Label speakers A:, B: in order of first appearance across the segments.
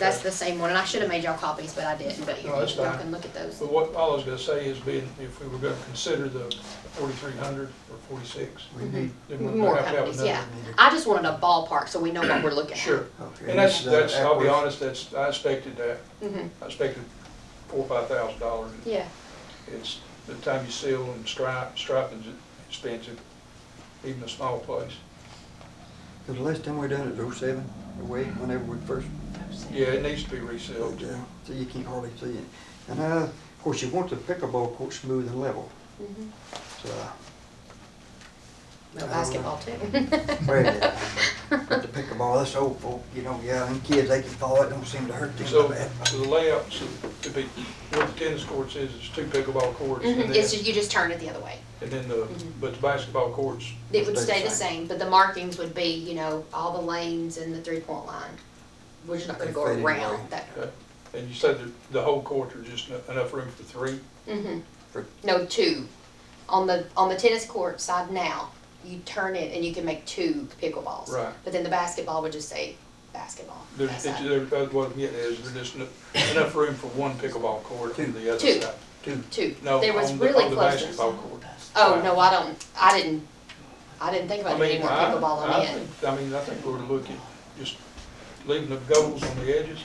A: That's the same one, and I should have made y'all copies, but I didn't, but you
B: No, that's
A: y'all
B: fine.
A: can look at those.
B: But what all I was gonna say is being, if we were gonna consider the forty-three hundred or forty-six,
C: We need,
B: then we're
A: More
B: gonna have to have
A: copies,
B: another.
A: yeah. I just wanted a ballpark so we know what we're looking at.
B: Sure,
C: okay. uh,
B: and that's,
C: this is
B: that's, I'll be honest,
C: backwards.
B: that's, I expected that,
A: Mhm.
B: I expected four, or five thousand dollars.
A: Yeah,
B: It's, the time you seal and stripe, striping's expensive, even a small place.
C: Cause the last time we done it was oh seven, oh eight, whenever we first
B: Yeah, it needs to be
C: built
B: resealed.
C: down, so you can't hardly see it. And, uh, of course, you want the pickleball court smooth and level,
A: Mhm.
C: so. uh,
A: No,
C: I don't
A: basketball
C: know.
A: too. Mm-hmm.
C: Well, yeah, But the pickleball, that's old folk, you know, yeah, and kids, they can fall, it don't seem to hurt them so
B: So,
C: bad.
B: so the layout, so it'd be, what the tennis courts is, is two pickleball courts, and
A: Mhm. It's,
B: then,
A: ju- you just turn it the other way.
B: and then the,
A: Mhm.
B: but the basketball courts,
A: It would stay the same, but the markings would be, you know, all the lanes and the three-point line. We're just not gonna go
C: Faded
A: around
C: line.
A: that.
B: okay? Uh, And you said that the whole court, there's just en- enough room for three?
A: Mhm.
C: For-
A: No, two. On the, on the tennis court side now, you turn it and you can make two pickleballs.
B: Right.
A: But then the basketball would just say basketball.
B: There's,
A: that side.
B: there, that's what I'm getting at, is there's just en- enough room for one pickleball court on the other
A: Two.
B: side?
C: Two,
A: Two.
B: No,
A: There was
B: on the,
A: really
B: on the
A: close.
B: basketball court.
A: Oh, no, I don't, I didn't, I didn't think
B: I
A: about doing
B: mean,
A: more
B: I,
A: pickleball on
B: I
A: the end.
B: think, I mean, I think we're looking, just leaving the goals on the edges.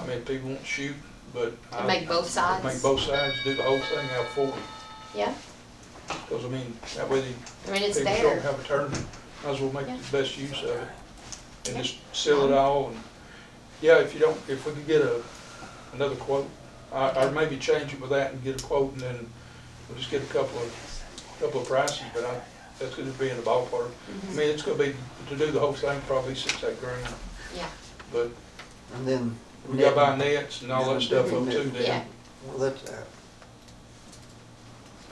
B: I mean, people won't shoot, but. I-
A: And make both sides?
B: Make both sides, do the whole thing out forward,
A: Yeah,
B: because I mean, that way the
A: I mean, it's
B: people don't
A: there.
B: have a tournament, might as well make
A: Yeah.
B: the best use of it. And
A: Yeah.
B: just seal it all and, yeah, if you don't, if we could get a, another quote, I, or maybe change it with that and get a quote and then we'll just get a couple of, couple of prices, but I, that's gonna be in the ballpark. I
A: Mm-hmm.
B: mean, it's gonna be, to do the whole thing, probably six, eight grand,
A: Yeah,
B: but
C: and then.
B: we gotta buy nets and all that stuff up too
A: yeah.
B: then.
C: Well, that's, uh,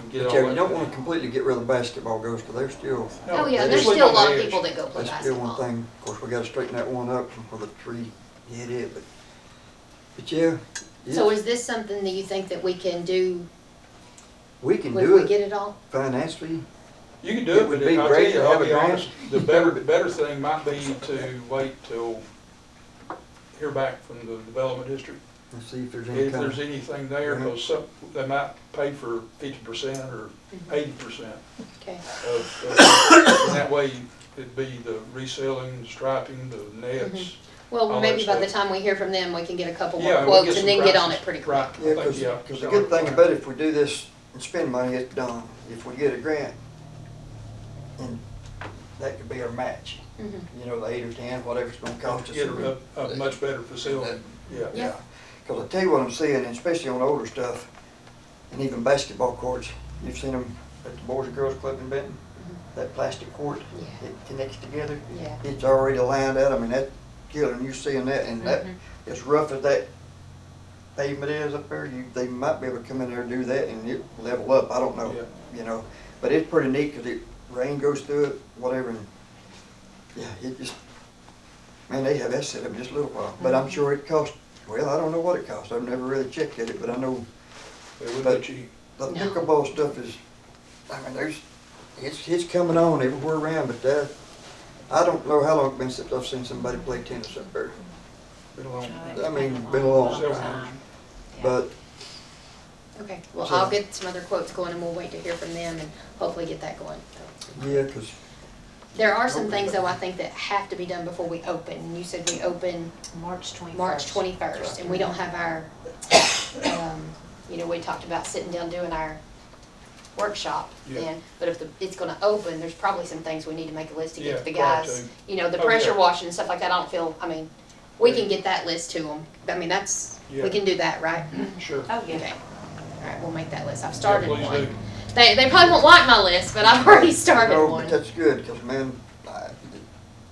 B: and
C: but
B: get all
C: yeah, you
B: that
C: don't
B: done.
C: wanna completely get rid of the basketball goals, cause they're still,
B: No,
A: Oh, yeah,
B: just
A: there's
B: leave
A: still a
B: on
A: lot of
B: edge.
A: people that go play
C: that's still one
A: basketball.
C: thing. Of course, we gotta straighten that one up from where the tree hit it, but, but yeah.
A: So
C: yes,
A: is this something that you think that we can do
C: We can
A: if
C: do
A: we
C: it
A: get it all?
C: financially,
B: You can
C: It
B: do it,
C: would
B: but
C: be
B: I'll tell
C: great
B: you,
C: to
B: I'll
C: have
B: be
C: a grant.
B: honest, the better, the better thing might be to wait till hear back from the development district.
C: and see if there's any
B: If
C: kind
B: there's
C: of,
B: anything there,
C: Mhm.
B: because some, they might pay for fifty percent or eighty percent
A: Okay,
B: of, of- and that way it'd be the reselling, the striping, the nets.
A: well,
B: All
A: maybe
B: that
A: by the
B: stuff.
A: time we hear from them, we can get a couple more
B: Yeah, we'll
A: quotes
B: some
A: and then get on
B: prices.
A: it pretty quick.
B: Right, I
C: yeah,
B: think,
C: cause,
B: yeah.
C: 'cause the good thing about it, if we do this and spend money, it's done. If we get a grant, and that could be our match,
A: Mhm.
C: you know, the eight or ten, whatever it's gonna cost us.
B: Get a, a much better facility, yeah.
A: Yeah.
C: Yeah, because I tell you what I'm seeing, especially on older stuff, and even basketball courts, you've seen them at the Boys and Girls Club in Benton,
A: mm-hmm.
C: that plastic court,
A: Yeah.
C: it connects together.
A: Yeah.
C: It's already lined out, I mean, that killer, and you seeing that, and that,
A: Mhm.
C: as rough as that pavement is up there, you, they might be able to come in there and do that and it level up, I don't know, you know? But it's pretty neat, because it, rain goes through it, whatever, and, yeah, it just, man, they have that set up just a little while, but
A: Mm-hmm.
C: I'm sure it cost, well, I don't know what it cost, I've never really checked at it, but I know
B: It would
C: But-
B: be cheap.
C: the
A: No.
C: pickleball stuff is, I mean, there's, it's, it's coming on everywhere around, but that, I don't know how long it's been since I've seen somebody play tennis up there.
B: Been a long time.
C: I mean, been a long
B: time.
C: But
A: Okay, well,
C: So-
A: I'll get some other quotes going and we'll wait to hear from them and hopefully get that going.
C: Yeah, because
A: There are some
C: Okay.
A: things though I think that have to be done before we open. And You said we open
D: March twenty-first.
A: March twenty-first and we don't have our, um, you know, we talked about sitting down doing our workshop
B: Yeah.
A: then. But if the, it's gonna open, there's probably some things we need to make a list to get
B: Yeah,
A: to the
B: prior
A: guys.
B: to.
A: You know, the
B: Oh, yeah.
A: pressure washing and stuff like that, I don't feel, I mean, we can get that list to them. I mean, that's,
B: Yeah.
A: we can do that, right?
B: Sure.
D: Oh,
A: Okay,
D: yeah.
A: all right, we'll make that list. I've started
B: Yeah, please
A: one.
B: do.
A: They, they probably won't like my list, but I've already started
C: no,
A: one.
C: but that's good because man, I,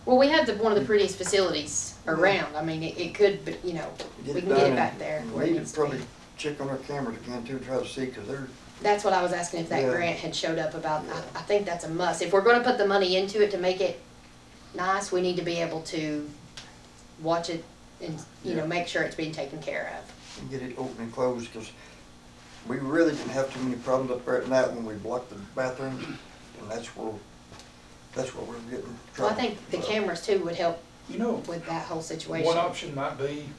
A: Well, we have the, one of the prettiest facilities around. I mean, it, it could, but you know,
C: get
A: we
C: it
A: can
C: done.
A: get it
C: and
A: back there where
C: We
A: it
C: need
A: needs
C: to
A: to be.
C: probably check on our cameras again too, try to see because they're
A: That's what I was asking if that
C: Yeah.
A: grant had showed up about.
C: Yeah.
A: I, I think that's a must. If we're gonna put the money into it to make it nice, we need to be able to watch it and, you know, make sure it's being taken care of.
C: get it open and closed because we really didn't have too many problems up there at night when we blocked the bathrooms and that's where that's where we're getting.
A: Well, I
C: trouble.
A: think the
C: So-
A: cameras too would help
B: You know,
A: with that whole situation.
B: one option might be